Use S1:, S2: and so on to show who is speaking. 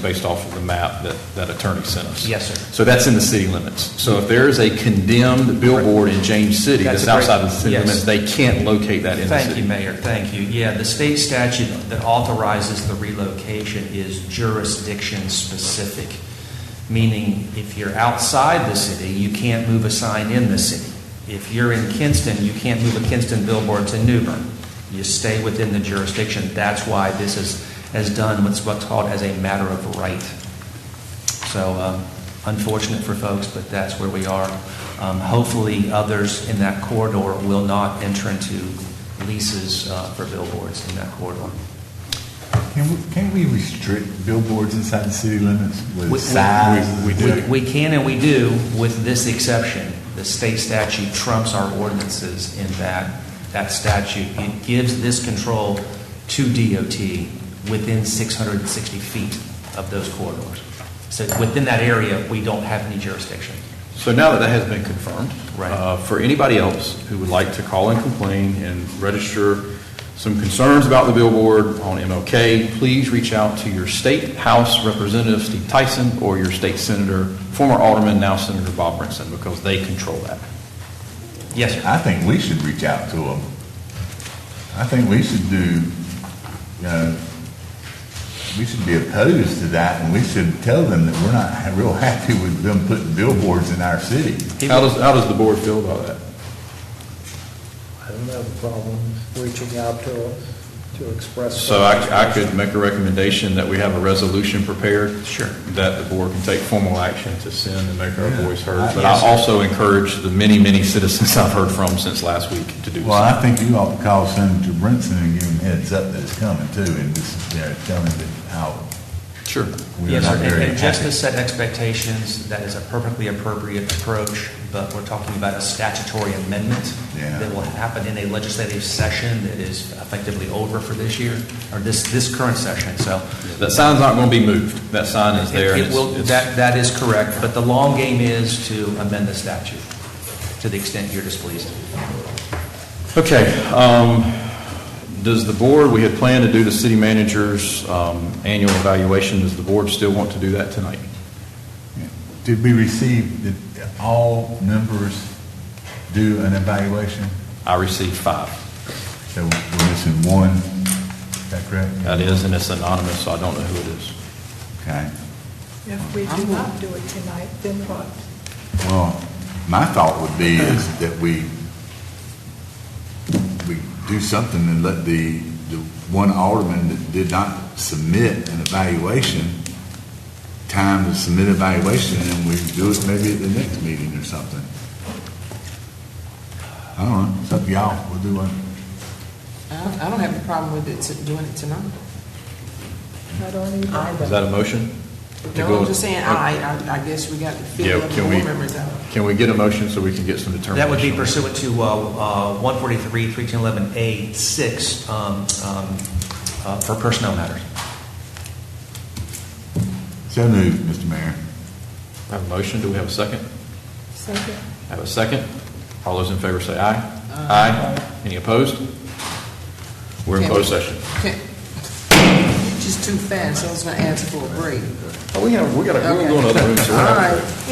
S1: based off of the map that, that attorney sent us.
S2: Yes, sir.
S1: So that's in the city limits. So if there is a condemned billboard in James City
S2: That's
S1: that's
S2: a great-
S1: outside of the city
S2: yes.
S1: limits, they can't locate that in the
S2: Thank you,
S1: city.
S2: Mayor, thank you. Yeah, the state statute that authorizes the relocation is jurisdiction-specific, meaning if you're outside the city, you can't move a sign in the city. If you're in Kinston, you can't move a Kinston billboard to Newbern. You stay within the jurisdiction. That's why this is, is done, what's what's called as a matter of right. So um, unfortunate for folks, but that's where we are. Um, Hopefully, others in that corridor will not enter into leases uh, for billboards in that corridor.
S3: Can we, can we restrict billboards inside the city limits
S2: We- we-
S3: with size?
S1: we
S2: We we can and we do, with this exception. The state statute trumps our ordinances in that, that statute. It gives this control to DOT within 660 feet of those corridors. So within that area, we don't have any jurisdiction.
S1: So now that that has been confirmed,
S2: Right.
S1: uh, for anybody else who would like to call and complain and register some concerns about the billboard on MLK, please reach out to your state House Representative Steve Tyson or your state Senator, former Alderman, now Senator Bob Brinson, because they control that.
S2: Yes, sir.
S3: I think we should reach out to them. I think we should do, you know, we should be opposed to that and we should tell them that we're not ha- real happy with them putting billboards in our city.
S1: How does, how does the board feel about that?
S4: I don't have a problem reaching out to, to express.
S1: So I, I could make a recommendation that we have a resolution prepared. Sure. That the board can take formal action to send and make our
S3: Yeah.
S1: voice heard.
S3: I-
S1: But I also encourage the many, many citizens I've heard from since last week to do
S3: Well,
S1: so.
S3: I think you ought to call Senator Brinson and give him heads up that it's coming too and just, you know, tell him that how
S1: Sure.
S3: we are
S2: Yes,
S3: not
S2: sir, and-
S3: very
S2: and just to
S3: happy.
S2: set expectations, that is a perfectly appropriate approach, but we're talking about a statutory amendment
S3: Yeah.
S2: that will happen in a legislative session that is effectively over for this year, or this, this current session, so.
S1: That sign's not going to be moved. That sign is there. and
S2: It will,
S1: it's-
S2: that, that is correct, but the long game is to amend the statute to the extent you're displeased.
S1: Okay, um, does the board, we had planned to do the city manager's, um, annual evaluation. Does the board still want to do that tonight?
S3: Did we receive, did all members do an evaluation?
S1: I received five.
S3: So we're missing one, is that correct?
S1: That is, and it's anonymous, so I don't know who it is.
S3: Okay.
S5: If we do not do it tonight, then what?
S3: Well, my thought would be is that we, we do something and let the, the one alderman that did not submit an evaluation, time to submit evaluation, and we do it maybe at the next meeting or something. I don't know, it's up to y'all, we'll do one.
S6: I don't- I don't have a problem with it, to- doing it tonight.
S5: I don't
S1: Is
S5: either.
S1: that a motion? To
S6: No,
S1: go-
S6: I'm just saying, I, I- I guess we got to
S1: Yeah,
S6: figure out the
S1: can we-
S6: board members out.
S1: Can we get a motion so we can get some determination?
S2: That would be pursuant to uh, uh, 143, 311A6 um, um, uh, for personnel matters.
S3: So moved, Mr. Mayor.
S1: I Have a motion, do we have a second?
S5: Second.
S1: Have a second? All those in favor say aye. Aye. Any opposed? We're in
S6: Can-
S1: closed session.
S6: Okay. Just too fast, so I was gonna ask for a break.
S1: Oh, we have, we got,
S6: Okay.
S1: another room, so we're gonna have to-
S6: All right.